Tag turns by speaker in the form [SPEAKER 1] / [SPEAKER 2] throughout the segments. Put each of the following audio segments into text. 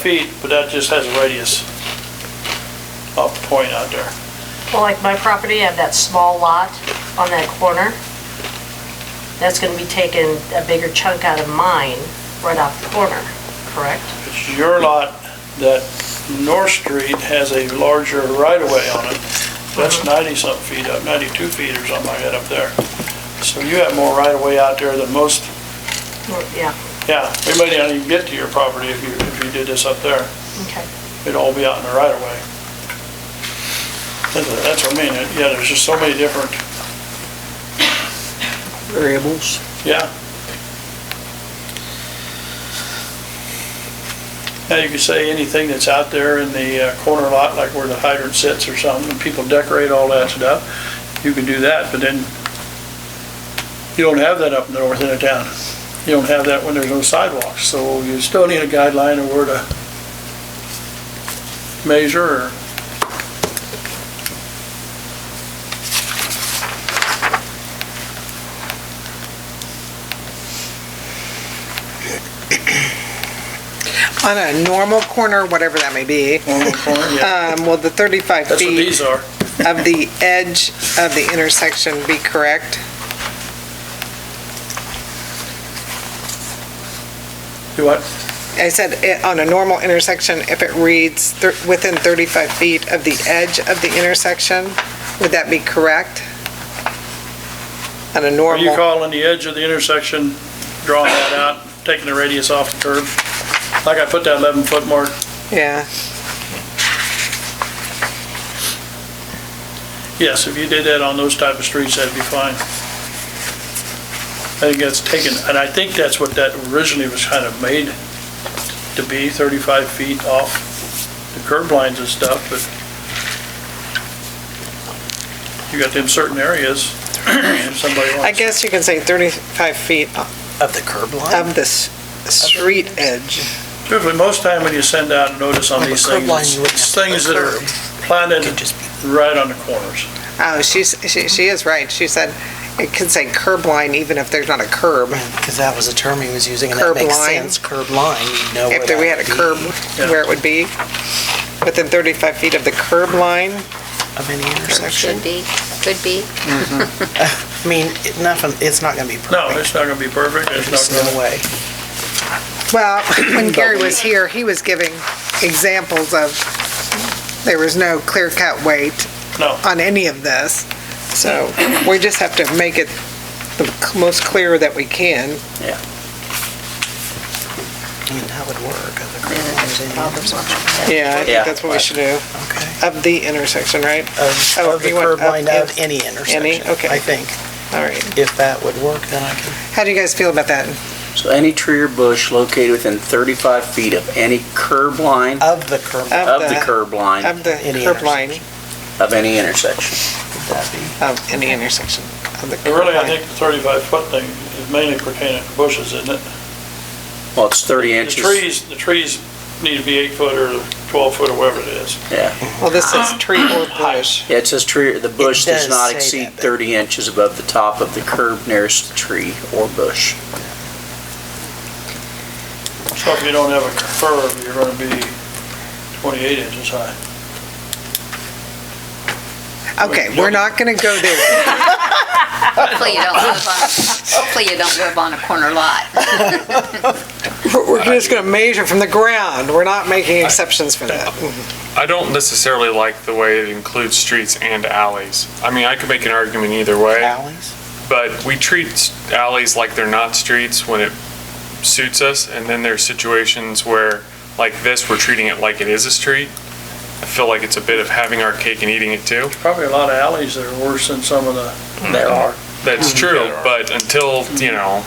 [SPEAKER 1] feet, but that just has a radius up point out there.
[SPEAKER 2] Well, like my property, I have that small lot on that corner. That's gonna be taking a bigger chunk out of mine right off the corner, correct?
[SPEAKER 1] It's your lot that North Street has a larger right-of-way on it. That's 90-something feet up, 92 feet or something like that up there. So you have more right-of-way out there than most,
[SPEAKER 2] Or- Yeah,
[SPEAKER 1] yeah, we might not even get to your property if you, if you did this up there.
[SPEAKER 2] okay.
[SPEAKER 1] It'd all be out in the right-of-way. That's what- That's what I mean, yeah, there's just so many different,
[SPEAKER 3] variables.
[SPEAKER 1] yeah. Now, you could say anything that's out there in the uh, corner lot, like where the hydrant sits or something, and people decorate all that stuff, you can do that, but then you don't have that up in the north end of town. You don't have that when there's no sidewalks, so you still need a guideline of where to measure or
[SPEAKER 3] On a normal corner, whatever that may be,
[SPEAKER 1] on the corner, yeah.
[SPEAKER 3] um, will the 35
[SPEAKER 1] That's what
[SPEAKER 3] feet
[SPEAKER 1] these are.
[SPEAKER 3] of the edge of the intersection be correct?
[SPEAKER 1] Do what?
[SPEAKER 3] I said, eh, on a normal intersection, if it reads thir- within 35 feet of the edge of the intersection, would that be correct? On a
[SPEAKER 1] Are you
[SPEAKER 3] normal,
[SPEAKER 1] calling the edge of the intersection, drawing that out, taking the radius off the curb? Like I put that 11-foot mark,
[SPEAKER 3] yeah,
[SPEAKER 1] yes, if you did that on those type of streets, that'd be fine. I think that's taken, and I think that's what that originally was kind of made to be, 35 feet off the curb lines and stuff, but you got them certain areas, if somebody
[SPEAKER 3] I
[SPEAKER 1] wants.
[SPEAKER 3] guess you can say 35 feet
[SPEAKER 4] Of the curb line?
[SPEAKER 3] of the s- street edge.
[SPEAKER 1] Truthfully, most time when you send out a notice on
[SPEAKER 4] On the
[SPEAKER 1] these
[SPEAKER 4] curb
[SPEAKER 1] things,
[SPEAKER 4] line, you wouldn't
[SPEAKER 1] it's
[SPEAKER 4] have to
[SPEAKER 1] things
[SPEAKER 4] put
[SPEAKER 1] that are
[SPEAKER 4] curb.
[SPEAKER 1] planted
[SPEAKER 4] Could just be-
[SPEAKER 1] right on the corners.
[SPEAKER 3] Oh, she's, she she is right. She said, it could say curb line even if there's not a curb.
[SPEAKER 4] Because that was a term he was using, and that
[SPEAKER 3] Curb
[SPEAKER 4] makes
[SPEAKER 3] line.
[SPEAKER 4] sense. Curb line, you'd know where
[SPEAKER 3] If there- we
[SPEAKER 4] that
[SPEAKER 3] had a
[SPEAKER 4] would be.
[SPEAKER 3] curb, where it would be, within 35 feet of the curb line,
[SPEAKER 4] Of any intersection.
[SPEAKER 5] Should be, could be.
[SPEAKER 4] I mean, it- nothing, it's not gonna be perfect.
[SPEAKER 1] No, it's not gonna be perfect, it's
[SPEAKER 4] There's
[SPEAKER 1] not
[SPEAKER 4] no
[SPEAKER 1] gonna,
[SPEAKER 4] way.
[SPEAKER 3] well, when Gary was here, he was giving examples of, there was no clear-cut weight
[SPEAKER 1] no,
[SPEAKER 3] on any of this, so we just have to make it the most clear that we can.
[SPEAKER 4] I mean, that would work, of the curb lines, any
[SPEAKER 5] Problems
[SPEAKER 4] intersection.
[SPEAKER 5] with that.
[SPEAKER 3] Yeah, I
[SPEAKER 6] Yeah.
[SPEAKER 3] think that's what we should do,
[SPEAKER 4] Okay.
[SPEAKER 3] of the intersection, right?
[SPEAKER 4] Of
[SPEAKER 3] Oh,
[SPEAKER 4] of the
[SPEAKER 3] you want
[SPEAKER 4] curb
[SPEAKER 3] up
[SPEAKER 4] line of
[SPEAKER 3] if-
[SPEAKER 4] any intersection,
[SPEAKER 3] okay.
[SPEAKER 4] I think.
[SPEAKER 3] All right.
[SPEAKER 4] If that would work, then I can,
[SPEAKER 3] How do you guys feel about that?
[SPEAKER 6] So any tree or bush located within 35 feet of any curb line,
[SPEAKER 4] of the curb, line,
[SPEAKER 6] of the
[SPEAKER 3] the-
[SPEAKER 6] curb line
[SPEAKER 3] Of the
[SPEAKER 4] Any
[SPEAKER 3] curb line,
[SPEAKER 6] of any intersection.
[SPEAKER 4] would that be?
[SPEAKER 3] of any intersection, of the
[SPEAKER 1] And
[SPEAKER 3] curb
[SPEAKER 1] really, I
[SPEAKER 3] line.
[SPEAKER 1] think the thirty-five foot thing is mainly pertaining to bushes, isn't it?
[SPEAKER 6] Well, it's 30
[SPEAKER 1] The
[SPEAKER 6] inches.
[SPEAKER 1] trees, the trees need to be eight foot or twelve foot or whatever it is.
[SPEAKER 6] Yeah,
[SPEAKER 3] Well, this is tree or bush.
[SPEAKER 6] Yeah, it says tree, the bush
[SPEAKER 4] does
[SPEAKER 6] does not
[SPEAKER 4] say
[SPEAKER 6] exceed
[SPEAKER 4] that, but-
[SPEAKER 6] 30 inches above the top of the curb nearest the tree or bush.
[SPEAKER 1] So if you don't have a curb, you're gonna be twenty-eight inches high.
[SPEAKER 3] Okay, we're not gonna go there.
[SPEAKER 5] Hopefully you don't live on, hopefully you don't live on a corner lot.
[SPEAKER 3] We're we're just gonna measure from the ground. We're not making exceptions for that.
[SPEAKER 7] I don't necessarily like the way it includes streets and alleys. I mean, I could make an argument either way,
[SPEAKER 4] Alleys?
[SPEAKER 7] but we treat s- alleys like they're not streets when it suits us, and then there's situations where, like this, we're treating it like it is a street. I feel like it's a bit of having our cake and eating it too.
[SPEAKER 1] Probably a lot of alleys that are worse than some of the.
[SPEAKER 6] There are.
[SPEAKER 7] That's true, but until, you know,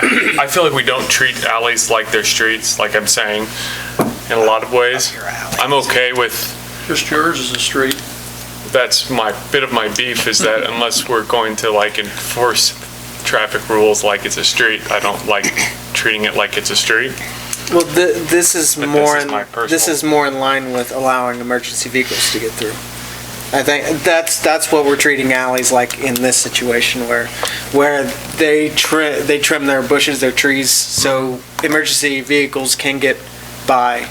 [SPEAKER 7] I I feel like we don't treat alleys like they're streets, like I'm saying, in a lot of ways.
[SPEAKER 4] Your alley.
[SPEAKER 7] I'm okay with
[SPEAKER 1] Just yours is a street.
[SPEAKER 7] that's my, bit of my beef is that unless we're going to like enforce traffic rules like it's a street, I don't like treating it like it's a street.
[SPEAKER 8] Well, thi- this is
[SPEAKER 7] But this
[SPEAKER 8] more,
[SPEAKER 7] is
[SPEAKER 8] in-
[SPEAKER 7] my
[SPEAKER 8] this
[SPEAKER 7] personal-
[SPEAKER 8] is more in line with allowing emergency vehicles to get through. I think, that's, that's what we're treating alleys like in this situation where, where they trim, they trim their bushes, their trees, so emergency vehicles can get by.